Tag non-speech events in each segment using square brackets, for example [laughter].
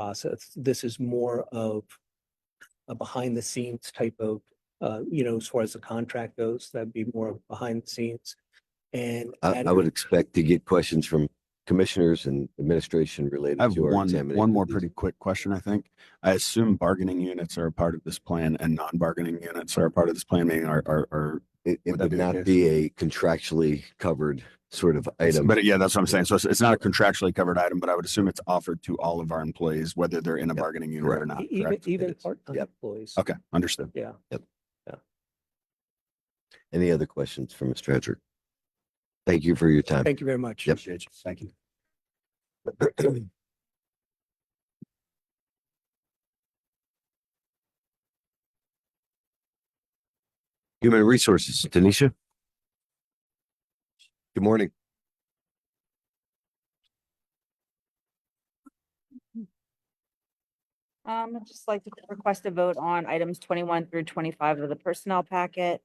process. This is more of a behind the scenes type of, uh, you know, as far as the contract goes, that'd be more of behind the scenes. And. e, I, at- I would expect to get questions from commissioners and administration related I have to our one, examination one more of these. pretty quick question, I think. I assume bargaining units are a part of this plan and non-bargaining units are a part of this plan, meaning are, are, are. It, it Would that would be the not case? be a contractually covered sort of item. But yeah, that's what I'm saying. So it's, it's not a contractually covered item, but I would assume it's offered to all of our employees, whether they're in a Yep, bargaining unit or correct. not, e- Even, correct? even is. part-time Yep. employees. Okay, understood. Yeah. Any other questions from Mr. Hedrick? Thank you for your time. Thank you very much. Yep. Appreciate you. Thank you. [clears throat] Human Resources, Tanisha? Good morning. Um, I'd just like to request a vote on items twenty-one through twenty-five of the personnel packet.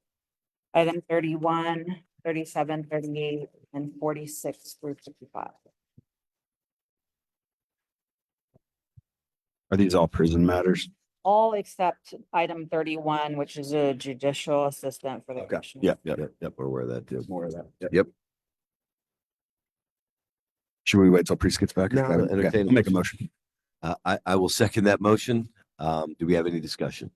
Item 31, 37, 38, and forty-six through fifty-five. Are these all prison matters? All except item thirty-one, which is a judicial assistant for the Okay, commissioner. yeah, yeah. Yep, yep, we're aware of that too. More of that. Yep. Should we wait till Priest gets back? No, I'll Okay, entertain a I'll Make a motion. motion. Uh, I, I will second that motion. Um, do we have any discussion?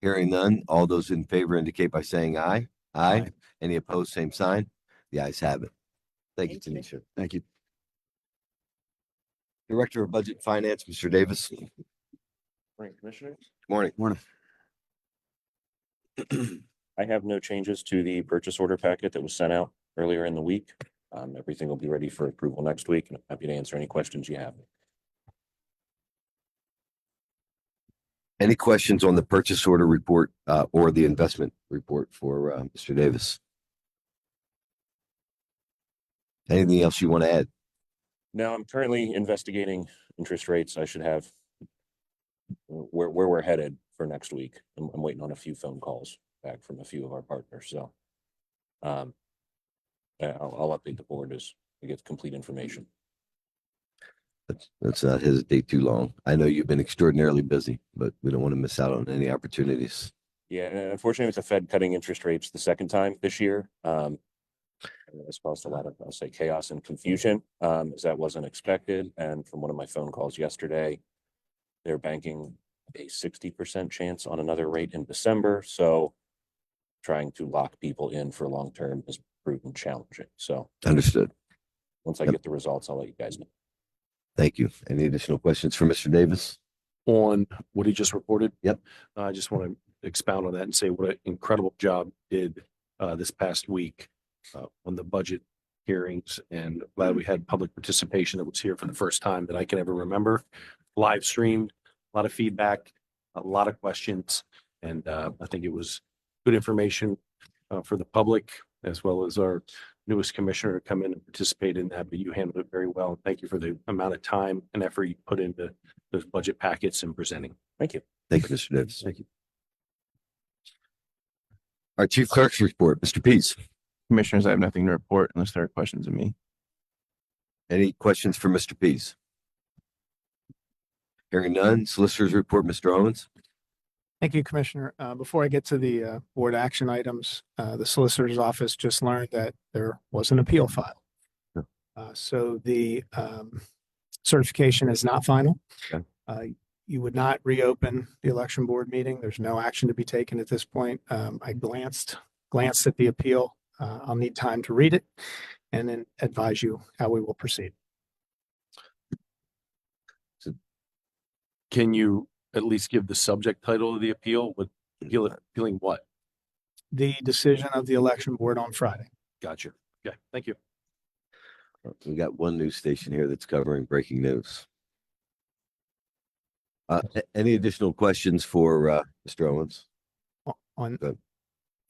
Hearing none, all those in favor indicate by saying aye. Aye. Aye. Any opposed, same sign? The ayes have it. Thank you, Thank Tanisha. Thank you. Director of Budget and Finance, Mr. Davis. Morning, Commissioners. Morning. Morning. I have no changes to the purchase order packet that was sent out earlier in the week. Um, everything will be ready for approval next week and I'm happy to answer any questions you have. Any questions on the purchase order report, uh, or the investment report for, uh, Mr. Davis? Anything else you want to add? Now, I'm currently investigating interest rates. I should have where, where we're headed for next week. I'm, I'm waiting on a few phone calls back from a few of our partners, so. Um, I- I'll, I'll update the board as we get complete information. Let's, let's not uh, hesitate too long. I know you've been extraordinarily busy, but we don't want to miss out on any opportunities. Yeah, and unfortunately with the Fed cutting interest rates the second time this year, um. It's caused a lot of, I'll say chaos and confusion, um, as that wasn't expected. And from one of my phone calls yesterday. They're banking a sixty percent chance on another rate in December, so. Trying to lock people in for long term is proven challenging. So Understood. once I Yep. get the results, I'll let you guys know. Thank you. Any additional questions for Mr. Davis? on what he just reported. Yep. I just want to expound on that and say what an incredible job did uh, this past week uh, on the budget hearings and glad we had public participation that was here for the first time that I can ever remember. Live streamed, a lot of feedback, a lot of questions, and uh, I think it was good information uh, for the public as well as our newest commissioner to come in and participate in that, but you handled it very well. Thank you for the amount of time and effort you put into those budget packets and presenting. Thank you. Thank you, Mr. Davis. Thank you. Our chief clerk's report, Mr. Pease. Commissioners, I have nothing to report unless there are questions of me. Any questions for Mr. Pease? Hearing none, solicitors report, Mr. Owens. Thank you, Commissioner. Uh, before I get to the, uh, board action items, uh, the Solicitor's Office just learned that there was an appeal filed. Yeah. Uh, so the, um, certification is not final. Okay. Uh, you would not reopen the election board meeting. There's no action to be taken at this point. Um, I glanced, glanced at the appeal. Uh, I'll need time to read it and then advise you how we will proceed. Can you at least give the subject title of the appeal? What, appeal, appealing what? The decision of the election board on Friday. Gotcha. Okay, thank you. We got one news station here that's covering breaking news. Uh, a- any additional questions for, uh, Mr. Owens? o- on, Good.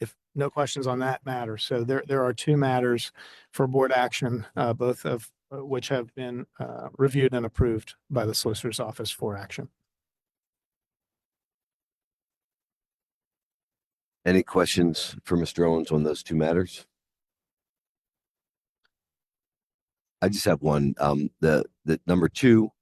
if, no questions on that matter. So there, there are two matters for board action, uh, both of uh, which have been, uh, reviewed and approved by the Solicitor's Office for action. Any questions for Mr. Owens on those two matters? I just have one, um, the, the number two,